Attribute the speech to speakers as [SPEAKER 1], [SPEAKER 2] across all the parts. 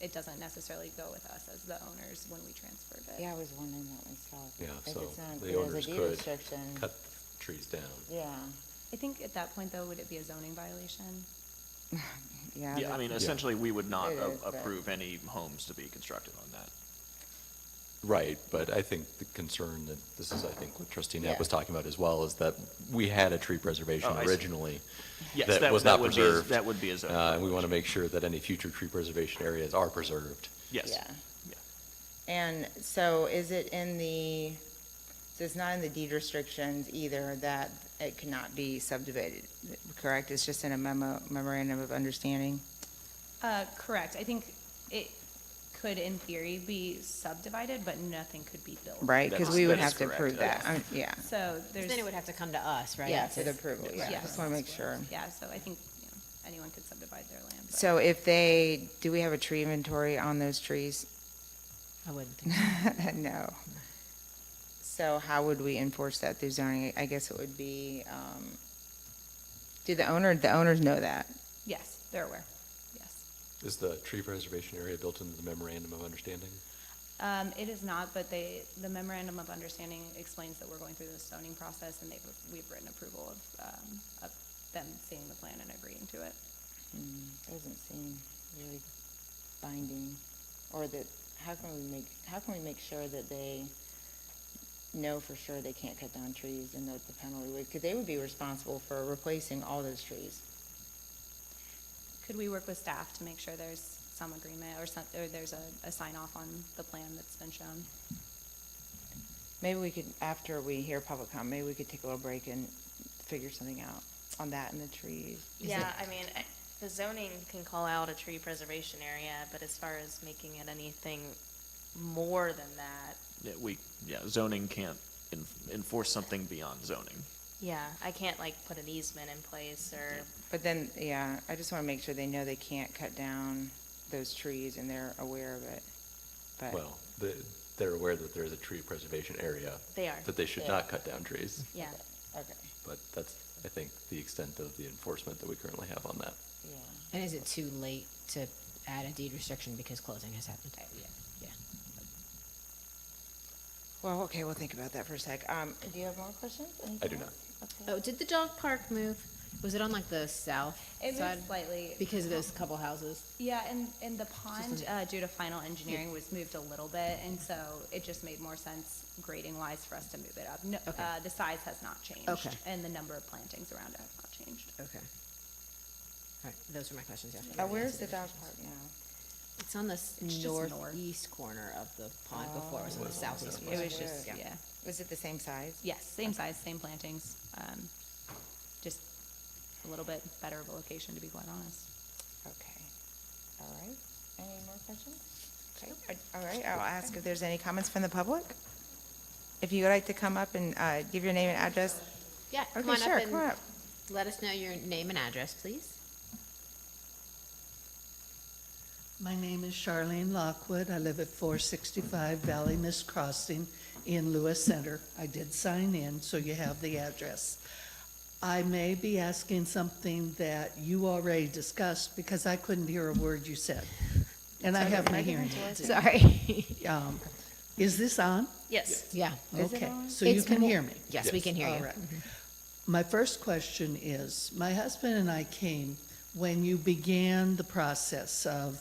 [SPEAKER 1] it doesn't necessarily go with us as the owners when we transferred it.
[SPEAKER 2] Yeah, I was wondering that myself.
[SPEAKER 3] Yeah,
[SPEAKER 2] If
[SPEAKER 3] so
[SPEAKER 2] it's not-
[SPEAKER 3] the
[SPEAKER 2] if there's a
[SPEAKER 3] owners
[SPEAKER 2] deed
[SPEAKER 3] could
[SPEAKER 2] restriction,
[SPEAKER 3] cut the trees down.
[SPEAKER 2] Yeah,
[SPEAKER 1] I think at that point though, would it be a zoning violation?
[SPEAKER 2] yeah.
[SPEAKER 4] Yeah, I
[SPEAKER 2] but-
[SPEAKER 4] mean, essentially, we would not
[SPEAKER 2] It
[SPEAKER 4] a-
[SPEAKER 2] is, but-
[SPEAKER 4] approve any homes to be constructed on that.
[SPEAKER 3] Right, but I think the concern that, this is, I think, what trustee Knapp
[SPEAKER 2] Yeah.
[SPEAKER 3] was talking about as well, is that we had a tree preservation
[SPEAKER 4] Oh, I see.
[SPEAKER 3] originally.
[SPEAKER 4] Yes,
[SPEAKER 3] that
[SPEAKER 4] that-
[SPEAKER 3] was
[SPEAKER 4] that
[SPEAKER 3] not
[SPEAKER 4] would be a-
[SPEAKER 3] preserved.
[SPEAKER 4] that would be a zoning
[SPEAKER 3] Uh, And we want to make sure that any future tree preservation areas are preserved.
[SPEAKER 4] Yes.
[SPEAKER 2] Yeah.
[SPEAKER 4] Yeah.
[SPEAKER 2] And so is it in the, so it's not in the deed restrictions either that it cannot be subdivided, correct? It's just in a memo, memorandum of understanding?
[SPEAKER 1] Uh, correct, I think it could in theory be subdivided, but nothing could be built.
[SPEAKER 2] Right, because
[SPEAKER 4] That's-
[SPEAKER 2] we would
[SPEAKER 4] that is
[SPEAKER 2] have to
[SPEAKER 4] correct,
[SPEAKER 2] approve
[SPEAKER 4] yes.
[SPEAKER 2] that, Um, yeah.
[SPEAKER 1] So there's,
[SPEAKER 5] Then it would have to come to us, right?
[SPEAKER 2] Yeah, for the approval, yeah,
[SPEAKER 1] Yes.
[SPEAKER 2] just want to make sure.
[SPEAKER 1] yeah, so I think, you know, anyone could subdivide their land. but-
[SPEAKER 2] So if they, do we have a tree inventory on those trees?
[SPEAKER 5] I wouldn't think.
[SPEAKER 2] No. So how would we enforce that through zoning? I guess it would be, um, do the owner, the owners know that?
[SPEAKER 1] Yes, they're aware, yes.
[SPEAKER 3] Is the tree preservation area built into the memorandum of understanding?
[SPEAKER 1] Um, it is not, but they, the memorandum of understanding explains that we're going through the zoning process and they've, we've written approval of, um, of them seeing the plan and agreeing to it.
[SPEAKER 2] Mm, Doesn't seem really binding, or that, how can we make, how can we make sure that they know for sure they can't cut down trees and that the penalty would, because they would be responsible for replacing all those trees.
[SPEAKER 1] Could we work with staff to make sure there's some agreement or some, or there's a, a sign off on the plan that's been shown?
[SPEAKER 2] Maybe we could, after we hear public comment, maybe we could take a little break and figure something out on that and the trees. Is
[SPEAKER 6] Yeah,
[SPEAKER 2] it-
[SPEAKER 6] I mean, I- the zoning can call out a tree preservation area, but as far as making it anything more than that,
[SPEAKER 4] Yeah, we, yeah, zoning can't en- enforce something beyond zoning.
[SPEAKER 6] yeah, I can't like put an easement in place or,
[SPEAKER 2] But then, yeah, I just want to make sure they know they can't cut down those trees and they're aware of it. But-
[SPEAKER 3] Well, the- they're aware that there's a tree preservation area,
[SPEAKER 6] they are.
[SPEAKER 3] that they should not cut down trees.
[SPEAKER 6] Yeah,
[SPEAKER 2] Okay,
[SPEAKER 3] But that's, I think, the extent of the enforcement that we currently have on that.
[SPEAKER 2] yeah.
[SPEAKER 5] And is it too late to add a deed restriction because closing has happened? Uh, Yeah.
[SPEAKER 2] Well, okay, we'll think about that for a sec. Um, do you have more questions?
[SPEAKER 3] I do not.
[SPEAKER 5] Oh, did the dog park move? Was it on like the south
[SPEAKER 1] It
[SPEAKER 5] side?
[SPEAKER 1] moved slightly.
[SPEAKER 5] Because of those couple houses?
[SPEAKER 1] Yeah, and, and the pond, uh, due to final engineering was moved a little bit, and so it just made more sense grading wise for us to move it up. No,
[SPEAKER 5] Okay.
[SPEAKER 1] uh, the size has not changed.
[SPEAKER 5] Okay.
[SPEAKER 1] And the number of plantings around it has not changed.
[SPEAKER 5] Okay. All right, those were my questions, yeah.
[SPEAKER 2] Uh, where's the dog park now?
[SPEAKER 5] It's on the s-
[SPEAKER 1] It's just north.
[SPEAKER 5] northeast corner of the pond before, it was on the southeast corner.
[SPEAKER 1] It was just,
[SPEAKER 2] Yeah.
[SPEAKER 1] yeah,
[SPEAKER 2] Was it the same size?
[SPEAKER 1] yes, same size, same plantings, um, just a little bit better of a location, to be quite honest.
[SPEAKER 2] Okay, all right. Any more questions? Okay, I- all right, I'll ask if there's any comments from the public? If you'd like to come up and, uh, give your name and address.
[SPEAKER 5] Yeah, come
[SPEAKER 2] Okay,
[SPEAKER 5] on
[SPEAKER 2] sure,
[SPEAKER 5] up
[SPEAKER 2] come on
[SPEAKER 5] and
[SPEAKER 2] up.
[SPEAKER 5] let us know your name and address, please.
[SPEAKER 7] My name is Charlene Lockwood. I live at 465 Valley Miss Crossing in Lewis Center. I did sign in, so you have the address. I may be asking something that you already discussed because I couldn't hear a word you said. And I have my hearing. aids.
[SPEAKER 5] Sorry.
[SPEAKER 7] Um, Is this on?
[SPEAKER 6] yes.
[SPEAKER 5] Yeah.
[SPEAKER 2] Is it
[SPEAKER 7] Okay,
[SPEAKER 2] on?
[SPEAKER 7] so you
[SPEAKER 5] It's
[SPEAKER 7] can
[SPEAKER 5] more-
[SPEAKER 7] hear me?
[SPEAKER 5] Yes, we can hear
[SPEAKER 7] All
[SPEAKER 5] you.
[SPEAKER 7] right. My first question is, my husband and I came when you began the process of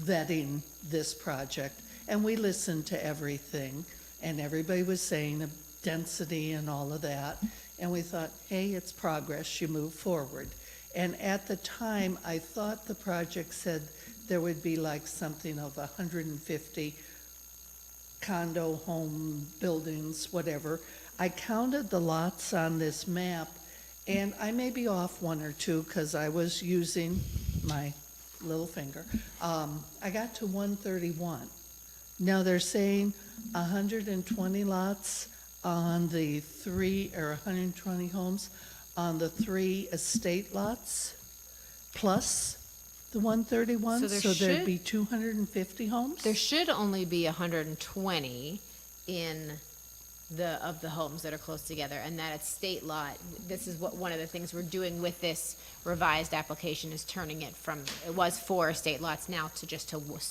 [SPEAKER 7] vetting this project, and we listened to everything, and everybody was saying the density and all of that, and we thought, hey, it's progress, you move forward. And at the time, I thought the project said there would be like something of hundred and fifty condo, home, buildings, whatever. I counted the lots on this map, and I may be off one or two because I was using my little finger. Um, I got to 131. Now they're saying 120 lots on the three, or 120 homes on the three estate lots, plus the 131.
[SPEAKER 5] So there
[SPEAKER 7] there'd
[SPEAKER 5] should-
[SPEAKER 7] be 250 homes?
[SPEAKER 5] There should only be hundred and twenty in the, of the homes that are close together, and that estate lot, this is what, one of the things we're doing with this revised application is turning it from, it was four estate lots now to just to w-